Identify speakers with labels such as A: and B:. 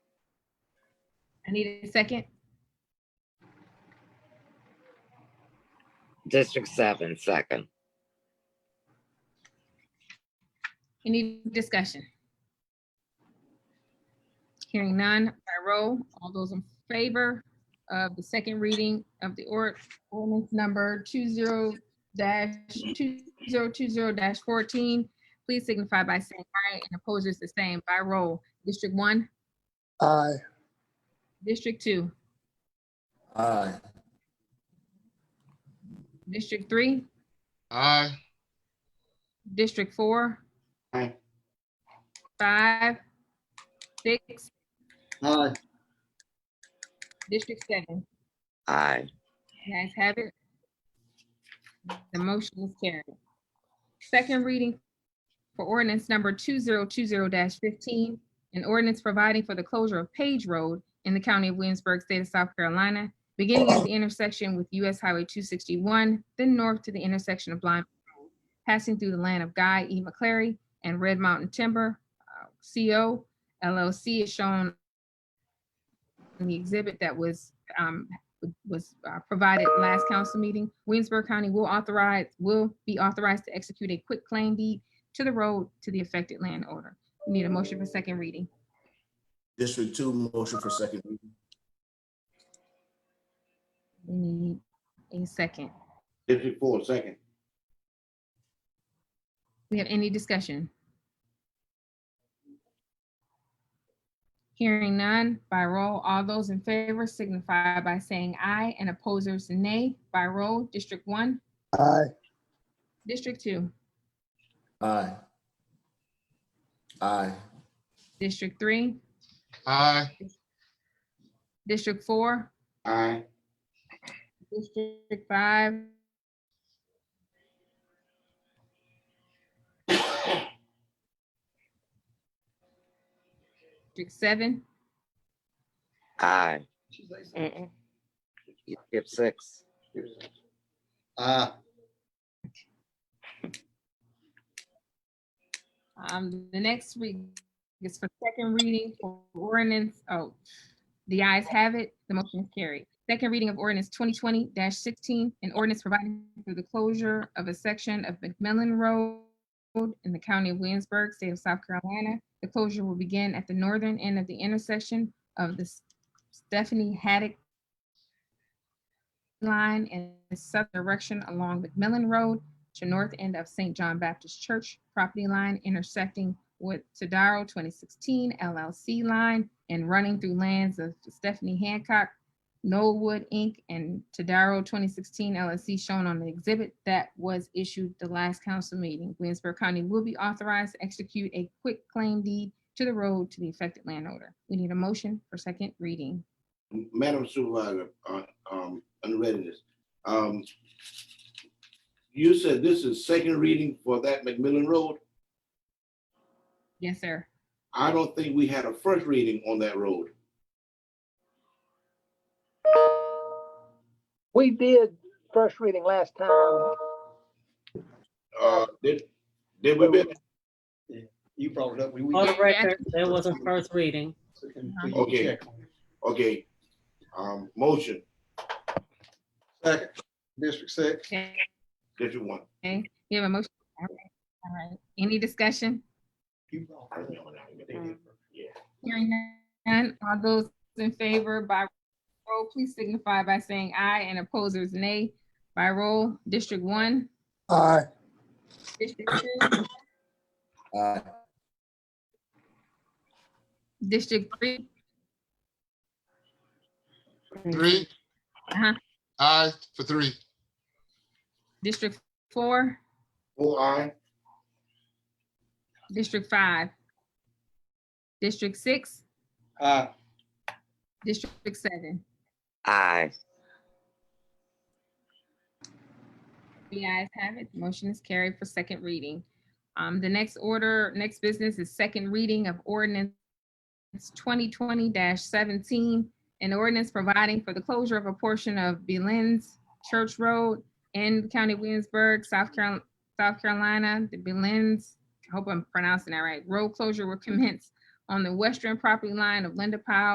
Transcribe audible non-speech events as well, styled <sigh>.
A: I need a second.
B: District seven, second.
A: Any discussion? Hearing none, by roll, all those in favor of the second reading of the or- ordinance number two zero dash two zero two zero dash fourteen, please signify by saying aye and opposers the same by roll. District one,
C: Aye.
A: district two,
C: Aye.
A: district three,
D: Aye.
A: district four.
D: Aye.
A: Five, six,
D: Aye.
A: district seven.
B: Aye.
A: Guys have it. The motion is carried. Second reading for ordinance number two zero two zero fifteen, an ordinance providing for the closure of Page Road in the county of Williamsburg, state of South Carolina, beginning at the intersection with US Highway two sixty-one, then north to the intersection of Blind, Mountain, passing through the land of Guy E. McClary and Red Mountain Timber, uh, CO LLC is shown in the exhibit that was um, was uh, provided last council meeting, Williamsburg County will authorize, will be authorized to execute a quick claim deed to the road to the affected landowner. We need a motion for second reading.
C: District two, motion for second reading.
A: We need a second.
D: District four, second.
A: We have any discussion? Hearing none, by roll, all those in favor signify by saying aye and opposers nay. By roll, District One,
C: Aye.
A: District Two,
C: Aye. Aye.
A: District Three,
D: Aye.
A: District Four,
D: Aye.
A: District five. <coughs> District seven,
B: Aye. You skip six.
D: Aye.
A: um, the next week is for second reading for ordinance, oh, the ayes have it, the motion is carried. Second reading of ordinance twenty twenty sixteen, an ordinance providing for the closure of a section of McMillan Road in the county of Williamsburg, state of South Carolina. The closure will begin at the northern end of the intersection of the Stephanie Haddock line in the southern direction along McMillan Road to north end of St. John Baptist Church property line intersecting with Tadaro 2016 LLC line and running through lands of Stephanie Hancock, Knollwood Inc., and Tadaro 2016 LLC shown on the exhibit that was issued the last council meeting. Williamsburg County will be authorized to execute a quick claim deed to the road to the affected landowner. We need a motion for second reading.
E: Madam Supervisor, uh, um, under readiness, um, you said this is second reading for that McMillan Road.
A: Yes, sir.
E: I don't think we had a first reading on that road.
F: We did first reading last time.
E: Uh, did, did we, Ben?
D: You brought it up. We, we.
G: On
A: Yeah,
G: the
A: yeah.
G: record, there was a first reading.
D: we- we
E: Okay.
D: check on it.
E: okay, um, motion,
D: Second, District six.
A: Okay,
E: District one.
A: you have a motion? All right, all right. Any discussion?
D: You brought it up.
A: Hearing none, all those in favor by roll, please signify by saying aye and opposers nay. By roll, District One,
C: Aye.
A: District Two,
C: Aye.
A: District Three,
D: Three.
A: Uh-huh.
D: Aye for three.
A: District Four,
E: Full aye,
A: District Five, District Six,
D: Aye.
A: District Seven.
B: Aye.
A: The ayes have it, the motion is carried for second reading. Um, the next order, next business is second reading of ordinance twenty twenty seventeen, an ordinance providing for the closure of a portion of Belen's Church Road in County Williamsburg, South Carolina, South Carolina. The Belen's, I hope I'm pronouncing that right, road closure will commence on the western property line of Linda Powell